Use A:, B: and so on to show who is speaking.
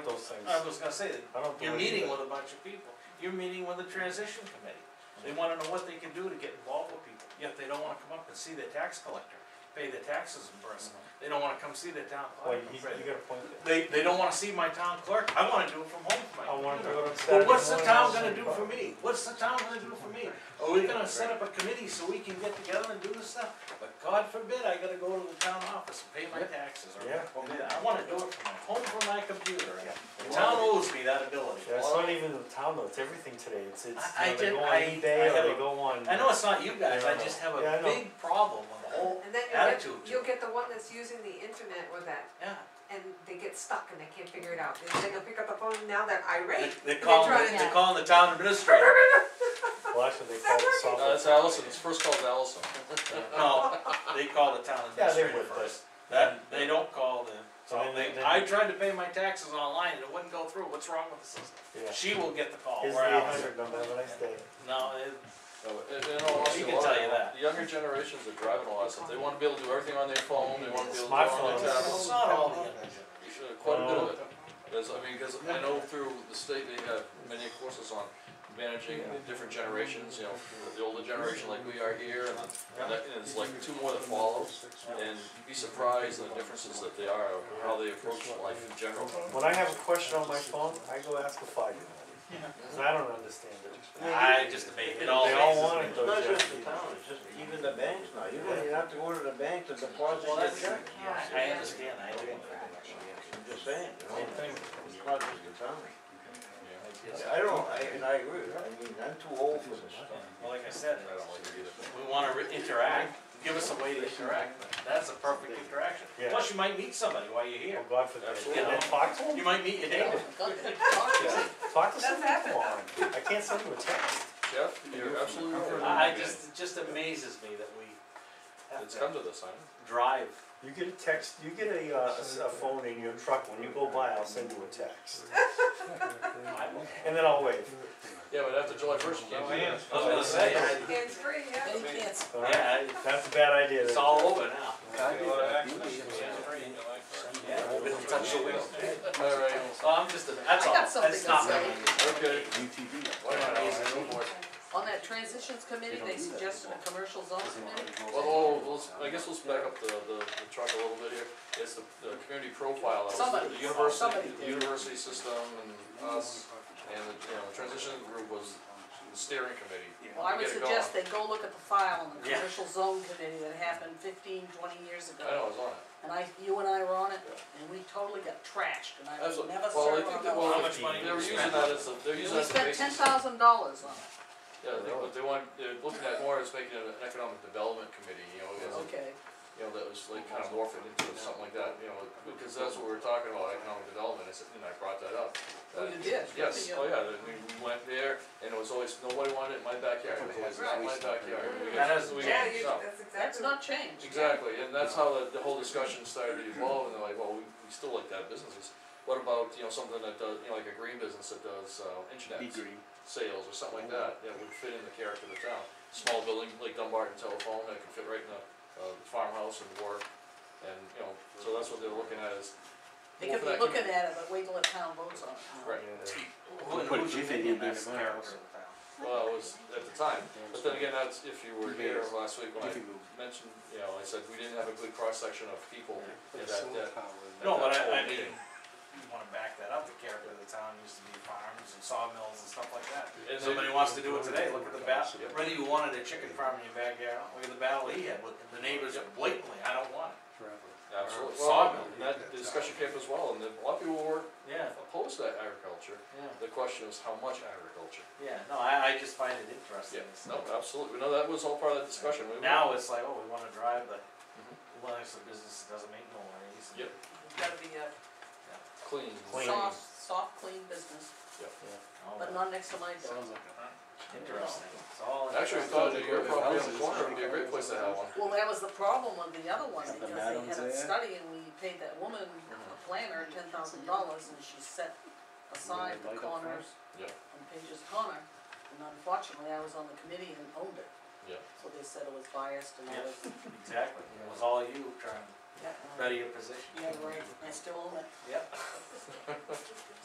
A: those things.
B: I was gonna say, that
A: I don't
B: you're
A: believe
B: meeting
A: that.
B: with a bunch of people, you're meeting with the transition committee. They wanna know what they can do to get involved with people, yet they don't wanna come up and see their tax collector, pay their taxes in person. They don't wanna come see their town
A: Mm-hmm. Well,
B: clerk.
A: you, you got a point there.
B: They, they don't wanna see my town clerk, I wanna do it from home, my
A: I wanted to
B: computer.
A: go on Saturday
B: Well, what's the
A: morning,
B: town
A: I'll
B: gonna
A: say
B: do
A: fuck
B: for
A: it.
B: me? What's the town gonna do for me?
A: Oh,
B: Are we gonna set up a committee so we can get together and do this stuff? But God forbid I gotta go to the town office and pay my taxes or,
A: Yeah.
B: or I wanna do it from my home, from my computer. and The
A: Yeah.
B: town owes me that ability.
A: Yeah, it's not even the town though, it's everything today, it's, it's,
B: I- I
A: you know, they
B: did-
A: go on
B: I- I
A: eBay
B: have
A: or
B: a-
A: they go on.
B: I know it's not you guys, I
A: Yeah.
B: just have
A: Yeah,
B: a
A: I know.
B: big problem with the whole,
C: And then you'll get,
B: Attitude to
C: you'll
B: it.
C: get the one that's using the internet with that,
B: yeah.
C: and they get stuck and they can't figure it out, and then they'll pick up the phone, and now they're
B: They-
C: irate.
B: They're
C: and
B: calling,
C: trying to-
B: they're calling the town administrator.
A: Well, actually, they call it software.
D: No, that's Allison, his first call's Allison.
B: No, they call the town
A: Yeah, they
B: administrator
A: would, but-
B: first. That, they don't call the,
A: So
B: so
A: then-
B: they,
A: then-
B: I tried to pay my taxes online and it wouldn't go through, what's wrong with the system?
A: Yeah.
B: She will get the call,
A: Here's
B: or
A: the eight
B: else.
A: hundred number, have a nice day.
B: No, it,
D: And, and all honesty,
B: She
D: a
B: can
D: lot
B: tell
D: of-
B: you that.
D: The younger generations are driving a lot of stuff, they wanna be able to do everything on their phone, they wanna be able to do it on
A: Smartphones.
D: their tablets.
B: it's not all the energy.
D: Uh, Quite a bit of it,
B: Oh.
D: There's- I mean, cause I know through the state, they have many courses on managing different generations, you know, the older generation like we are here, and the- and that- and it's like two more that follow. And you'd be surprised at the differences that they are, how they approach life in general.
A: When I have a question on my phone, I go ask a five-year-old, cause I don't understand it.
B: I just debate it all
A: They all
B: faces.
A: want it
E: It's
A: though,
E: not
A: Jeff.
E: just the town, it's just even the banks now, you don't even have to go to the bank to deposit
B: Well,
E: your
B: that's-
E: check,
B: I I understand, I do.
E: I'm just saying, you know,
A: Same thing.
E: it's not just the town. I don't, I, and I agree, I mean, I'm too old for this stuff.
B: Well, like I said, we wanna re- interact, give us a way to interact, but that's a perfect interaction.
A: Yeah.
B: Plus, you might meet somebody while you're
A: Oh,
B: here.
A: God forbid,
B: Absolutely.
A: and then talk to
B: You
A: them,
B: might meet your neighbor.
A: talk to
C: That's
A: someone, come
C: happened.
A: on, I can't send you a text.
D: Jeff, you're absolutely
B: I
D: right.
B: I just, it just amazes me that we have
D: It's come
B: to
D: to this, I know.
B: drive.
A: You get a text, you get a, uh, a s- a phone in your truck, when you go by, I'll send you a text,
B: I will-
A: and then I'll wave.
D: Yeah, but after July first, you can't do that.
B: I was gonna say, I-
C: Hands free, yeah.
F: Then you can't
A: All right?
B: yeah, I-
A: That's a bad idea.
B: it's
A: then.
B: all over now. Yeah,
D: Well, we don't touch
B: touch
D: the
B: the wheel.
D: wheel. All right,
B: So I'm just, a- that's
F: I
B: all,
F: got
B: that's
F: something
B: not
F: to say.
B: gonna be-
D: okay. Why not?
F: On that transitions committee, they suggested a commercial zone committee.
D: Well, oh, let's, I guess let's back up the, the, the truck a little bit here, it's the, the community profile, that was
F: Somebody-
D: the university,
F: somebody
D: the
F: did.
D: university system and us, and the, you know, transition group was the steering committee.
F: Well, I would
D: Get it
F: suggest they go look at the file on the
B: Yeah.
F: commercial zone committee that happened 15, 20 years
D: I know, I
F: ago.
D: was on it.
F: And I, you and I were on it, and we totally got trashed, and I would
D: Absolutely.
F: never
D: Well, I
F: serve
D: think
F: on
D: that,
F: that.
D: well,
B: How much money
D: they were
B: we
D: using
B: spent?
D: that as a, they're using that
F: We
D: as a
F: spent
D: basis.
F: ten thousand dollars on it,
D: Yeah, they, but they want, they're looking at more as making an economic development committee, you know, as a
F: okay.
D: you know, that was like kind of morphed into something like that, you know, because that's what we were talking about, economic development, I said- and I brought that up.
F: Oh, you did?
D: Yes,
F: Yeah.
D: oh yeah, then we we went there, and it was always, nobody wanted it in my backyard, it was in my backyard.
F: Mm-hmm.
D: We got-
B: That is-
D: we
C: Yeah,
D: got-
C: you,
D: no.
C: that's exactly.
F: That's not changed.
D: Exactly, and that's how the, the whole discussion started to evolve, and they're like, well, we, we still like that business, It's, what about, you know, something that does, you know, like a green business that does, uh, internet sales or something like that, that would fit in the character of the town. Small building like Dumbarton Telephone, that could fit right in the, uh, farmhouse and work, and, you know, so that's what they're looking at is.
F: They could be looking at it, but wait till the town votes on it.
D: Right,
B: Who-
E: Put a
B: who's
E: G thing
B: opinion
E: in there
B: that's
E: tomorrow.
B: character of the town?
D: well, it was at the time, but then again, that's if you were here last week when I mentioned, you know, I said we didn't have a good cross-section of people in that, that. uh,
B: No, but
D: that whole
B: I, I mean,
D: meeting.
B: you wanna back that up, the character of the town used to be farms and sawmills and stuff like that.
D: And
B: If
D: they-
B: somebody wants to do it today, look at the battle,
D: Yep.
B: whether you wanted a chicken farm in your backyard, look at the battle he had with the neighbors blatantly, I don't want it. Or
D: Absolutely, well,
B: sawmill.
D: and that discussion came up as well, and then a lot of people were
B: Yeah,
D: opposed to agriculture,
B: yeah,
D: the question is how much agriculture?
B: yeah, no, I, I just find it interesting.
D: Yeah, no, absolutely, no, that was all part of that discussion, we were.
B: Now it's like, oh, we wanna drive the Lennox the business that doesn't make no money.
D: Yep.
F: It's gotta be a
D: Clean.
A: Clean.
F: soft, soft, clean business,
B: Oh,
F: but not next to my door.
B: Interesting, it's all.
D: Actually, I
B: interesting.
D: thought that your property on the corner would be a great place to have one.
F: Well, that was the problem with the other one,
E: Got the
F: because they had
E: madams
F: a
E: there. Uh-huh.
F: study and we paid that woman, a planner, ten thousand dollars, and she set aside the corners
D: Yeah.
F: on Page's Corner, and unfortunately, I was on the committee and owned it.
D: Yeah.
F: So they said it was biased and I
B: Yeah.
F: was,
B: Exactly, it was all you trying to
F: yeah,
B: better your position.
F: yeah, right, I still own it.
B: Yep.